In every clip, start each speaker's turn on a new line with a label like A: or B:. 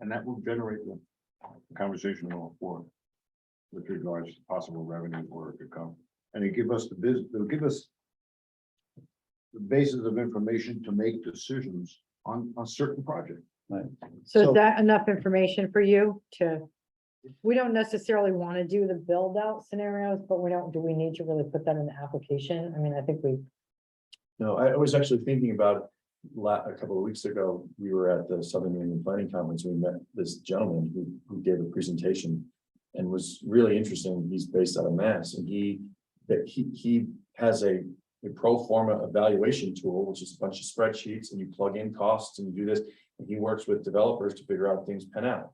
A: And that will generate the conversation going forward. With regards to possible revenue or it could come, and it give us the biz, it'll give us. The basis of information to make decisions on, on certain projects.
B: So
A: So-
B: is that enough information for you to? We don't necessarily want to do the build out scenarios, but we don't, do we need to really put that in the application? I mean, I think we,
C: No, I I was actually thinking about la, a couple of weeks ago, we were at the Southern New England Planning Conference, we met this gentleman who, who gave a presentation. And was really interesting, he's based out of Mass, and he, that he, he has a, a pro forma evaluation tool, which is a bunch of spreadsheets, and you plug in costs and you do this. And he works with developers to figure out things pan out.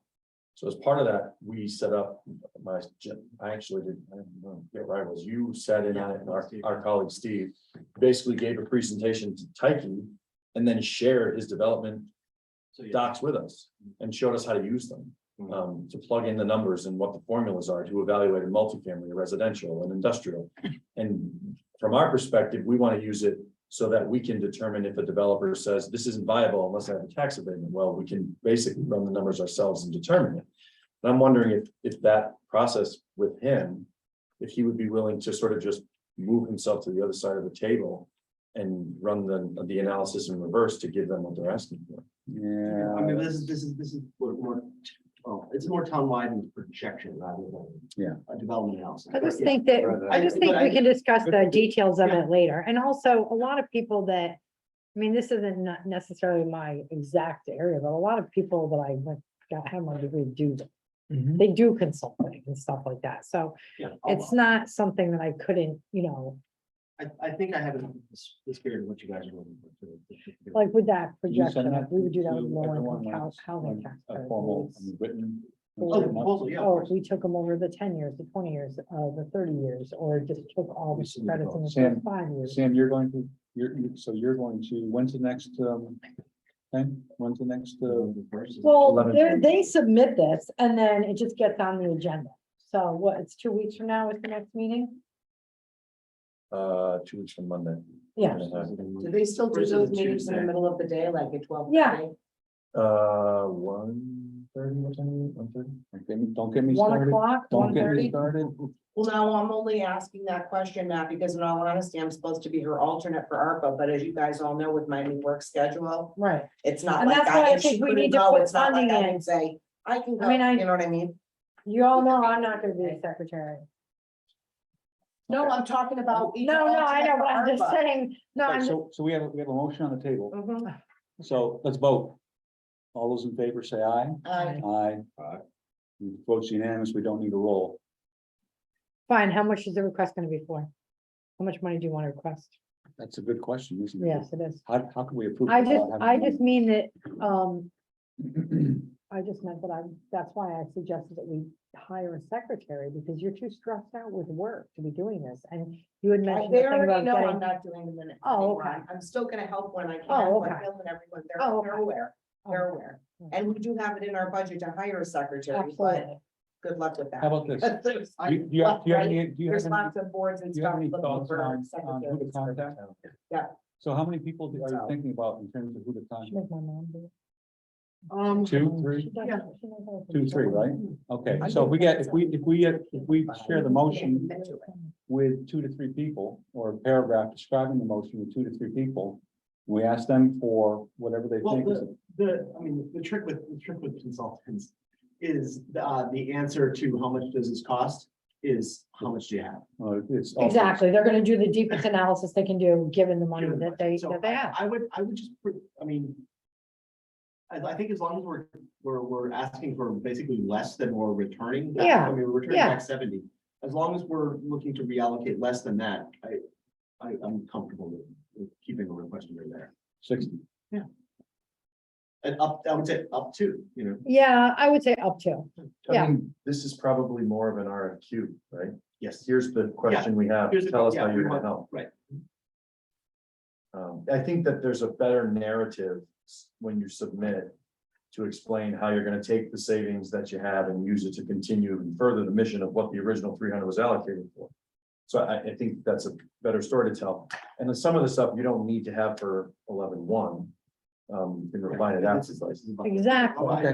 C: So as part of that, we set up my, gen- I actually didn't, I don't know, yeah, right, was you sat in on it, and our, our colleague Steve basically gave a presentation to Tyke and then shared his development docs with us and showed us how to use them.
A: Mhm.
C: Um, to plug in the numbers and what the formulas are to evaluate a multifamily, residential and industrial. And from our perspective, we want to use it so that we can determine if a developer says this isn't viable unless I have a tax abatement. Well, we can basically run the numbers ourselves and determine it. And I'm wondering if, if that process with him, if he would be willing to sort of just move himself to the other side of the table and run the, the analysis in reverse to give them what they're asking for.
D: Yeah, I mean, this is, this is, this is more, more, oh, it's more townwide and projection rather than.
E: Yeah.
D: A development analysis.
B: I just
D: Yeah.
B: think that, I just think
D: But
B: we
D: I-
B: can discuss the details of it later. And also, a lot of people that. I mean, this isn't not necessarily my exact area, but a lot of people that I went, got, had my degree do. They do consulting and stuff like that. So
D: Yeah, I'll-
B: it's not something that I couldn't, you know,
D: I, I think I have it in this this spirit of what you guys are looking for.
B: Like with that
E: You send
B: projection, like, we would do that
E: to
B: with low
E: everyone
B: income house,
E: once,
B: housing
E: like,
B: tax.
E: A formal, I mean,
B: credits.
E: written.
D: Oh, the proposal, yeah, of
B: Oh,
D: course.
B: we took them over the ten years, the twenty years, uh, the thirty years, or just took all
D: We
B: the
D: send it
B: credits in
D: all.
B: the
E: Sam-
B: first five years.
E: Sam, you're going to, you're, you- so you're going to, when's the next, um, thing? When's the next, uh,
B: Well,
C: 11.
B: they're, they submit this and then it just gets on the agenda. So what, it's two weeks from now is the next meeting?
C: Uh, two weeks from Monday.
B: Yeah,
F: Do they still do
D: Versus
F: those meetings in the
D: Tuesday.
F: middle of the day, like at twelve?
B: Yeah.
C: Uh, one thirty, what time, one thirty?
E: don't get me- don't get me
B: one
E: started.
B: o'clock,
E: Don't
B: one
E: get me
B: thirty.
E: started.
F: Well, now I'm only asking that question not because in all honesty, I'm supposed to be her alternate for ARPA, but as you guys all know with my new work schedule,
B: Right.
F: it's not
B: And
F: like
B: that's why I
F: I, if she
B: think we
F: couldn't
B: need to
F: go,
B: put
F: it's not like
B: funding
F: I
B: in.
F: can say, I can
B: I
F: go, you
B: mean, I-
F: know what I mean?
B: You all know I'm not gonna be a secretary.
F: No, I'm talking about. each
B: No, no, I
F: alternate
B: know,
F: for
B: but I'm just
F: ARPA. Uh,
B: saying, no,
E: Right,
B: I'm, mm-hmm.
E: So, so we have, we have a motion on the table,
F: Mhm.
E: so let's vote. All those in favor say aye.
F: I-
E: Aye.
A: Aye.
E: Votes unanimous, we don't need a roll.
B: fine, how much is the request gonna be for? How much money do you wanna request?
E: That's a good question, isn't it?
B: Yes, it is.
E: How, how can we approve?
B: I
E: it
B: just,
E: without
B: I
E: having-
B: just mean that, um, I just meant that I, that's why I suggested that we hire a secretary, because you're too stressed out with work to be doing this, and you had mentioned. the
F: They
B: thing
F: already
B: about
F: know I'm
B: getting-
F: not doing the minute.
B: Oh, okay.
F: anyway. I'm still gonna help when I can,
B: Oh,
F: but
B: okay.
F: Bill and everyone, they're,
B: Oh,
F: they're
B: okay.
F: aware, they're aware.
B: Mm.
F: And we do have it in our budget to hire a secretary, but
B: Absolutely.
F: good luck with that.
E: How about this?
F: There's-
E: Do you- do you have, do you have any, do you have
F: There's
E: any?
F: lots of boards and
E: do you have
F: stuff.
E: any
F: looking
E: thoughts
F: for
E: on- on who to
F: secretaries.
E: contact? So how many people do- are you thinking about in terms of who to
B: Should
E: contact?
B: make my mom do it.
D: Um,
E: Two,
B: Um,
E: three?
B: she does-
D: yeah.
B: she knows how to
E: Two,
B: do
E: three,
B: it.
E: right? Okay, so if we get, if we, if we, uh, if we share the motion with two to three people, or a paragraph describing the motion with two to three people, we ask them for whatever they
D: Well,
E: think is
D: the, I mean, the trick with, the trick with consultants is, uh, the answer to how much does this cost is how much do you have?
E: Uh, it's. also-
B: Exactly, they're gonna do the deepest analysis they can do, given the money
D: Given the
B: that they,
D: So
B: that they have.
D: I would, I would just, put- I mean. I, I think as long as we're, we're, we're asking for basically less than we're returning. back-
B: Yeah,
D: I mean, we're returning
B: yeah.
D: back seventy. As long as we're looking to reallocate less than that, I, I, I'm comfortable with- with keeping a request under there.
E: Sixty.
D: And up, I would say up to, you know,
B: Yeah, I would say up to,
C: I
B: Yeah.
C: mean, This is probably more of an RFQ, right?
D: yes,
C: Here's the question we have,
D: Here's the-
C: tell us how
D: yeah,
C: you
D: we
C: can
D: want-
C: help.
D: right.
C: Um, I think that there's a better narrative s- when you submit to explain how you're gonna take the savings that you have and use it to continue and further the mission of what the original three hundred was allocated for. So I, I think that's a better story to tell. And then some of the stuff you don't need to have for eleven one. Um, you can refine it
D: This
C: after.
D: is- this is about-
B: exactly.
D: Oh, I-